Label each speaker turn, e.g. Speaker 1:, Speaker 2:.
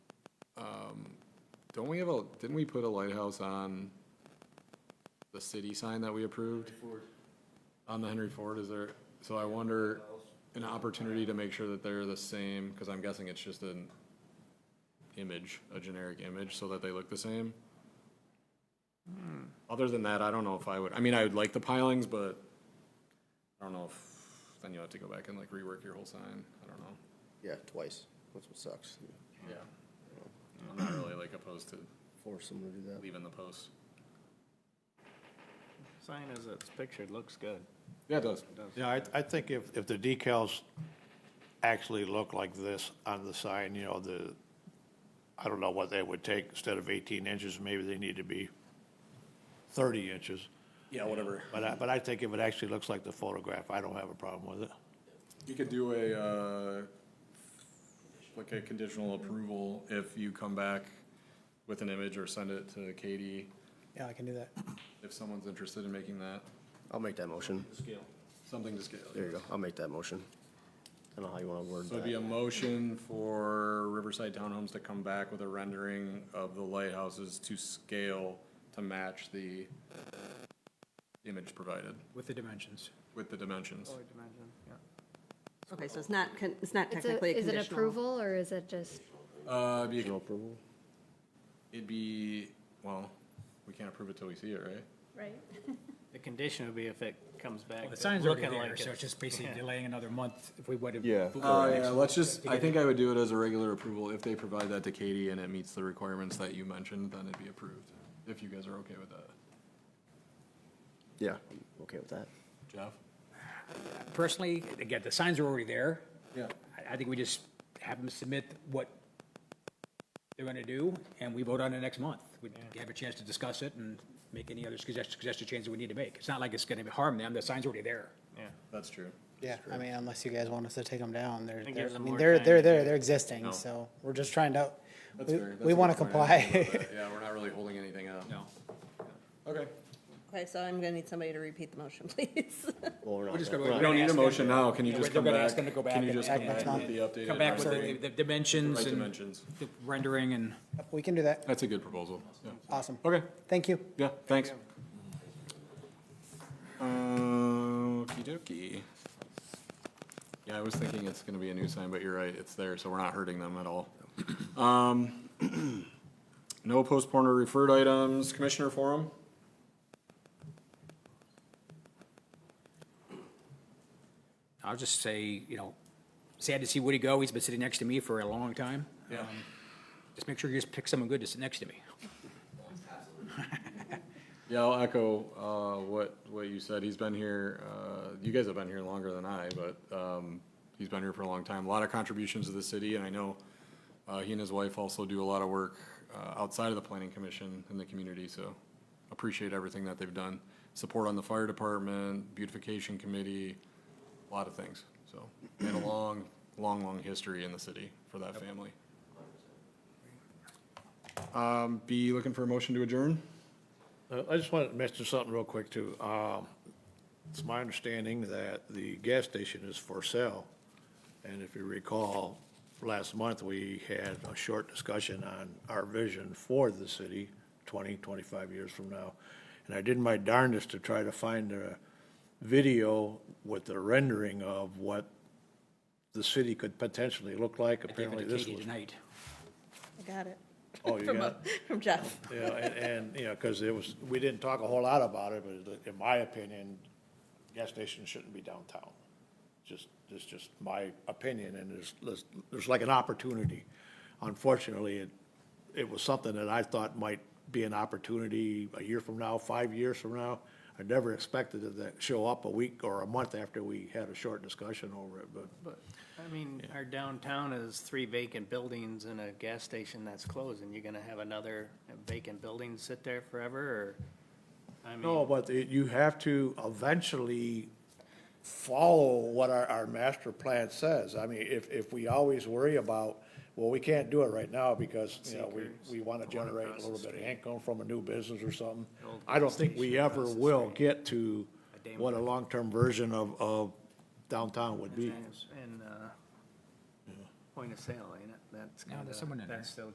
Speaker 1: Don't we have a, didn't we put a lighthouse on the city sign that we approved? On the Henry Ford, is there, so I wonder, an opportunity to make sure that they're the same, because I'm guessing it's just an image, a generic image, so that they look the same? Other than that, I don't know if I would, I mean, I would like the pilings, but I don't know if, then you'll have to go back and like rework your whole sign, I don't know.
Speaker 2: Yeah, twice. That's what sucks.
Speaker 1: Yeah. I'm not really like opposed to
Speaker 2: Force someone to do that.
Speaker 1: leaving the posts.
Speaker 3: Sign as it's pictured, looks good.
Speaker 1: Yeah, it does.
Speaker 4: Yeah, I, I think if, if the decals actually look like this on the sign, you know, the, I don't know what they would take, instead of eighteen inches, maybe they need to be thirty inches.
Speaker 1: Yeah, whatever.
Speaker 4: But I, but I think if it actually looks like the photograph, I don't have a problem with it.
Speaker 1: You could do a, uh, like a conditional approval if you come back with an image or send it to Katie,
Speaker 5: Yeah, I can do that.
Speaker 1: if someone's interested in making that,
Speaker 2: I'll make that motion.
Speaker 1: something to scale.
Speaker 2: There you go. I'll make that motion. I don't know how you want to word
Speaker 1: So it'd be a
Speaker 2: that.
Speaker 1: motion for Riverside Townhomes to come back with a rendering of the lighthouses to scale to match the image provided
Speaker 5: With the dimensions.
Speaker 1: with the
Speaker 2: Oh,
Speaker 1: dimensions.
Speaker 6: Okay, so it's not, con- it's not
Speaker 7: It's
Speaker 6: technically a
Speaker 7: Is
Speaker 6: conditional.
Speaker 7: it approval or is it just,
Speaker 1: Uh, it'd be a
Speaker 2: Conditional approval?
Speaker 1: It'd be, well, we can't approve it till we see it, right?
Speaker 7: right?
Speaker 3: The condition would be if it comes back.
Speaker 5: The sign's already
Speaker 3: looking
Speaker 5: there,
Speaker 3: like
Speaker 5: so it's just basically delaying another month if we would have.
Speaker 2: Yeah.
Speaker 1: Uh, yeah, let's just, I think I would do it as a regular approval. If they provide that to Katie and it meets the requirements that you mentioned, then it'd be approved, if you guys are okay with that.
Speaker 2: Yeah, I'm okay with that.
Speaker 1: Jeff?
Speaker 5: Personally, again, the signs are already there.
Speaker 1: Yeah.
Speaker 5: I, I think we just have them submit what they're gonna do, and we vote on it next month. We have a chance to discuss it and make any other suggestions, suggested changes we need to make. It's not like it's gonna harm them, the sign's already there.
Speaker 1: That's true.
Speaker 8: Yeah, I mean, unless you guys want us to take them down, they're,
Speaker 3: It
Speaker 8: they're,
Speaker 3: gives
Speaker 8: I
Speaker 3: them
Speaker 8: mean,
Speaker 3: more
Speaker 8: they're,
Speaker 3: time
Speaker 8: they're
Speaker 3: to
Speaker 8: there,
Speaker 3: do
Speaker 8: they're existing, so we're just trying to,
Speaker 1: That's
Speaker 8: we,
Speaker 1: fair. That's
Speaker 8: we
Speaker 1: a
Speaker 8: want to
Speaker 1: good point. I didn't think
Speaker 8: comply.
Speaker 1: about that. Yeah, we're not really holding anything up.
Speaker 5: No.
Speaker 1: Okay.
Speaker 6: Okay, so I'm gonna need somebody to repeat the motion, please.
Speaker 2: Well, we're not.
Speaker 5: We're just
Speaker 2: gonna-
Speaker 5: gonna-
Speaker 1: We don't need a
Speaker 5: Ask them.
Speaker 1: motion now. Can you
Speaker 5: Yeah,
Speaker 1: just
Speaker 5: we're
Speaker 1: come
Speaker 5: gonna
Speaker 1: back?
Speaker 5: ask them to go back
Speaker 1: Can you
Speaker 5: and
Speaker 1: just come
Speaker 5: act
Speaker 1: back
Speaker 5: on
Speaker 1: with the updated?
Speaker 5: Come back with the,
Speaker 1: rendering?
Speaker 5: the dimensions
Speaker 1: Right
Speaker 5: and
Speaker 1: dimensions.
Speaker 5: the rendering and.
Speaker 8: We can do that.
Speaker 1: That's a good proposal. Yeah.
Speaker 8: Awesome.
Speaker 1: Okay.
Speaker 8: Thank you.
Speaker 1: Yeah, thanks. Uh, Okey dokey. Yeah, I was thinking it's gonna be a new sign, but you're right, it's there, so we're not hurting them at all. Um, No postponed or referred items, Commissioner Forum?
Speaker 5: I'll just say, you know, sad to see Woody go. He's been sitting next to me for a long time.
Speaker 1: Yeah.
Speaker 5: Just make sure you just pick someone good to sit next to me.
Speaker 1: Yeah, I'll echo, uh, what, what you said, he's been here, uh, you guys have been here longer than I, but, um, he's been here for a long time, a lot of contributions to the city, and I know, uh, he and his wife also do a lot of work, uh, outside of the planning commission in the community, so appreciate everything that they've done. Support on the fire department, beautification committee, a lot of things, so, and a long, long, long history in the city for that family. Um, be looking for a motion to adjourn?
Speaker 4: Uh, I just wanted to mention something real quick too. Um, It's my understanding that the gas station is for sale. And if you recall, last month, we had a short discussion on our vision for the city 20, 25 years from now. And I did my darndest to try to find a video with the rendering of what the city could potentially look like.
Speaker 5: I gave it
Speaker 4: Apparently,
Speaker 5: to
Speaker 4: this
Speaker 5: Katie
Speaker 4: was.
Speaker 5: tonight.
Speaker 6: I got it.
Speaker 4: Oh, you
Speaker 6: From,
Speaker 4: got
Speaker 6: uh,
Speaker 4: it?
Speaker 6: From Jeff.
Speaker 4: Yeah, and, and, you know, because it was, we didn't talk a whole lot about it, but in my opinion, gas stations shouldn't be downtown. Just, that's just my opinion, and there's, there's, there's like an opportunity. Unfortunately, it, it was something that I thought might be an opportunity a year from now, five years from now. I never expected it to show up a week or a month after we had a short discussion over it, but
Speaker 3: I mean, our downtown is three vacant buildings and a gas station that's closed, and you're gonna have another vacant building sit there forever, or? I
Speaker 4: No,
Speaker 3: mean,
Speaker 4: but it- you have to eventually follow what our, our master plan says. I mean, if, if we always worry about, well, we can't do it right now because, you know, we, we want to generate a little bit of income from a new business or something. I don't think we ever will get to what a long-term version of, of downtown would be.
Speaker 3: and, uh, point of sale, ain't it? That's
Speaker 5: No,
Speaker 3: kinda,
Speaker 5: there's someone in
Speaker 3: that's still